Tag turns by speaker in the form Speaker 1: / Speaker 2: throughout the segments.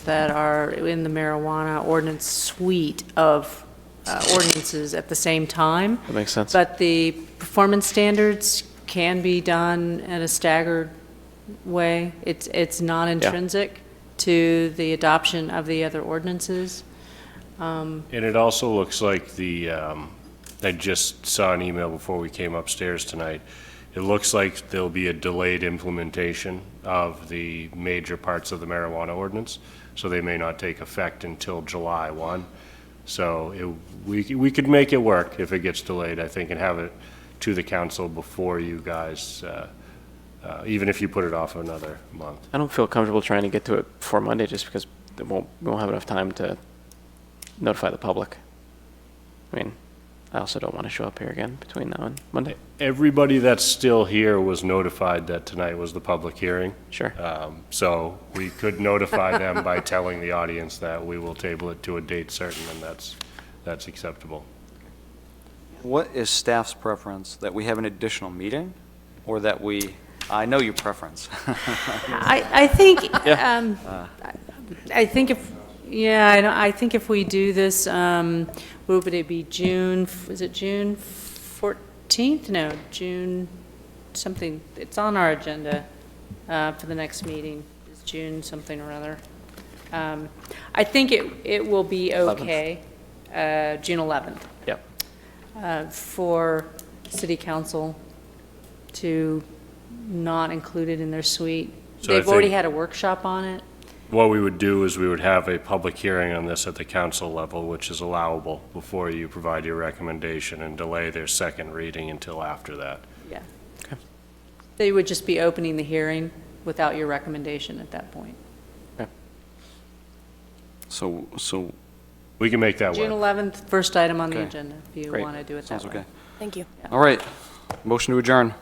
Speaker 1: that are in the marijuana ordinance suite of uh, ordinances at the same time.
Speaker 2: That makes sense.
Speaker 1: But the performance standards can be done in a staggered way. It's, it's not intrinsic to the adoption of the other ordinances.
Speaker 3: And it also looks like the, um, I just saw an email before we came upstairs tonight. It looks like there'll be a delayed implementation of the major parts of the marijuana ordinance, so they may not take effect until July 1. So it- we c- we could make it work if it gets delayed, I think, and have it to the council before you guys, uh, uh, even if you put it off another month.
Speaker 2: I don't feel comfortable trying to get to it before Monday just because it won't, we won't have enough time to notify the public. I mean, I also don't want to show up here again between now and Monday.
Speaker 3: Everybody that's still here was notified that tonight was the public hearing.
Speaker 2: Sure.
Speaker 3: Um, So we could notify them by telling the audience that we will table it to a date certain, and that's, that's acceptable.
Speaker 4: What is staff's preference, that we have an additional meeting, or that we, I know your preference.
Speaker 1: I, I think, um, I think if, yeah, I don't, I think if we do this, um, what would it be, June, is it June fourteenth? No, June something, it's on our agenda, uh, for the next meeting, it's June something or other. Um, I think it, it will be okay, uh, June eleventh,
Speaker 2: Yep.
Speaker 1: uh, for city council to not include it in their suite.
Speaker 3: So I
Speaker 1: They've already
Speaker 3: think-
Speaker 1: had a workshop on it.
Speaker 3: What we would do is we would have a public hearing on this at the council level, which is allowable, before you provide your recommendation and delay their second reading until after that.
Speaker 1: Yeah.
Speaker 2: Okay.
Speaker 1: They would just be opening the hearing without your recommendation at that point.
Speaker 4: So, so,
Speaker 3: We can make that
Speaker 1: June
Speaker 3: work.
Speaker 1: 11th, first item on the
Speaker 4: Okay.
Speaker 1: agenda, if you
Speaker 2: Great.
Speaker 1: want to do it that
Speaker 4: sounds
Speaker 1: way.
Speaker 4: okay.
Speaker 5: Thank you.
Speaker 4: All right, motion to adjourn.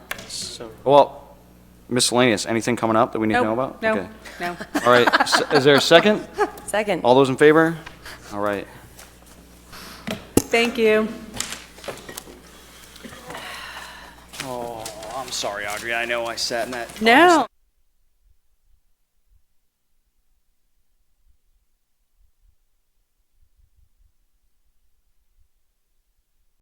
Speaker 4: Well, miscellaneous, anything coming up that we need to know
Speaker 1: No,
Speaker 4: about?
Speaker 1: no,
Speaker 4: Okay.
Speaker 1: no.
Speaker 4: All right, s- is there a second?
Speaker 5: Second.
Speaker 4: All those in favor? All right.
Speaker 1: Thank you.
Speaker 4: Oh, I'm sorry, Audrey, I know I sat in that
Speaker 1: No.